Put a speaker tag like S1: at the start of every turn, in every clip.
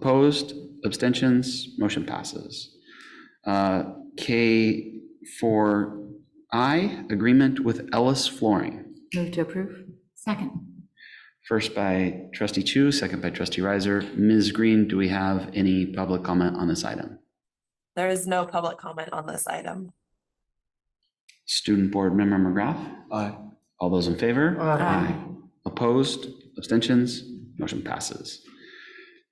S1: Opposed? Abstentions? Motion passes. Uh, K4I, agreement with Ellis Flooring.
S2: Move to approve. Second.
S1: First by trustee Chu, second by trustee Riser. Ms. Green, do we have any public comment on this item?
S3: There is no public comment on this item.
S1: Student Board Member McGrath?
S4: Aye.
S1: All those in favor?
S2: Aye.
S1: Opposed? Abstentions? Motion passes.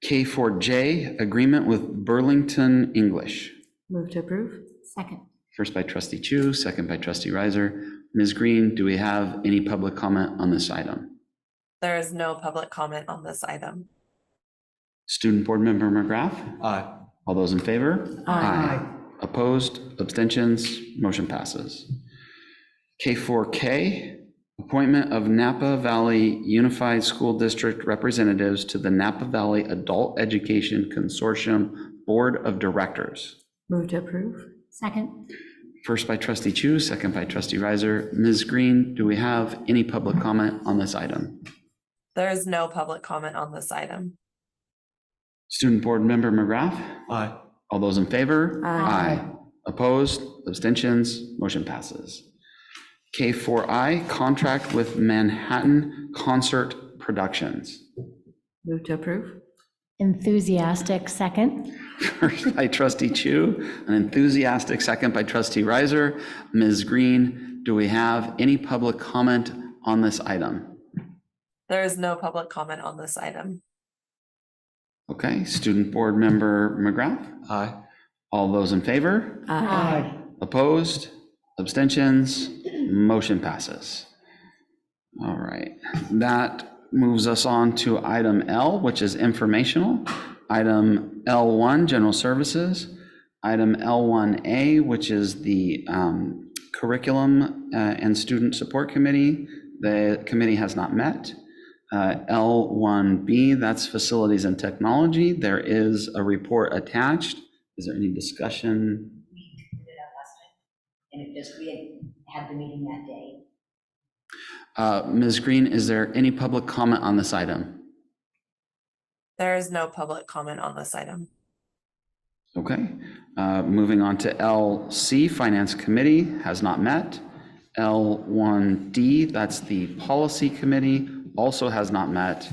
S1: K4J, agreement with Burlington English.
S2: Move to approve. Second.
S1: First by trustee Chu, second by trustee Riser. Ms. Green, do we have any public comment on this item?
S3: There is no public comment on this item.
S1: Student Board Member McGrath?
S4: Aye.
S1: All those in favor?
S2: Aye.
S1: Opposed? Abstentions? Motion passes. K4K, appointment of Napa Valley Unified School District representatives to the Napa Valley Adult Education Consortium Board of Directors.
S2: Move to approve. Second.
S1: First by trustee Chu, second by trustee Riser. Ms. Green, do we have any public comment on this item?
S3: There is no public comment on this item.
S1: Student Board Member McGrath?
S4: Aye.
S1: All those in favor?
S2: Aye.
S1: Opposed? Abstentions? Motion passes. K4I, contract with Manhattan Concert Productions.
S2: Move to approve.
S5: Enthusiastic second.
S1: First by trustee Chu, an enthusiastic second by trustee Riser. Ms. Green, do we have any public comment on this item?
S3: There is no public comment on this item.
S1: Okay, student board member McGrath?
S4: Aye.
S1: All those in favor?
S2: Aye.
S1: Opposed? Abstentions? Motion passes. All right, that moves us on to item L, which is informational. Item L1, general services. Item L1A, which is the um, curriculum uh, and student support committee. The committee has not met. Uh, L1B, that's facilities and technology. There is a report attached. Is there any discussion?
S6: we did it out last time, and it just, we had had the meeting that day.
S1: Uh, Ms. Green, is there any public comment on this item?
S3: There is no public comment on this item.
S1: Okay, Uh, moving on to LC, Finance Committee has not met. L1D, that's the Policy Committee, also has not met.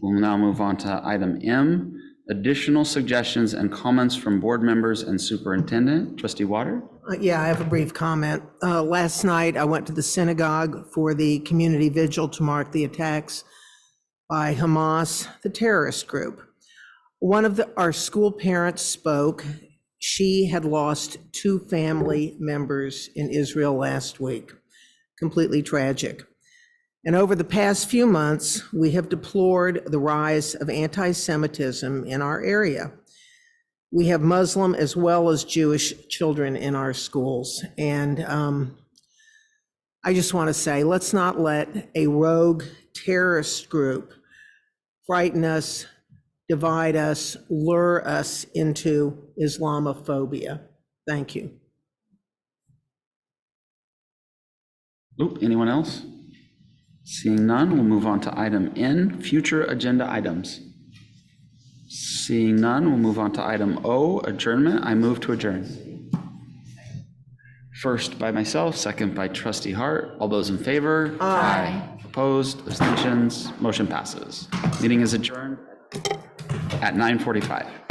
S1: We'll now move on to item M, additional suggestions and comments from board members and superintendent. Trustee Water?
S7: Uh, Yeah, I have a brief comment. Uh, Last night, I went to the synagogue for the community vigil to mark the attacks by Hamas, the terrorist group. One of the, our school parents spoke. She had lost two family members in Israel last week. Completely tragic. And over the past few months, we have deplored the rise of anti-Semitism in our area. We have Muslim as well as Jewish children in our schools. And um, I just want to say, let's not let a rogue terrorist group frighten us, divide us, lure us into Islamophobia. Thank you.
S1: Oop, anyone else? Seeing none, we'll move on to item N, future agenda items. Seeing none, we'll move on to item O, adjournment. I move to adjourn. First by myself, second by trustee Hart. All those in favor? Aye. Opposed, abstentions, motion passes. Meeting is adjourned at 9:45.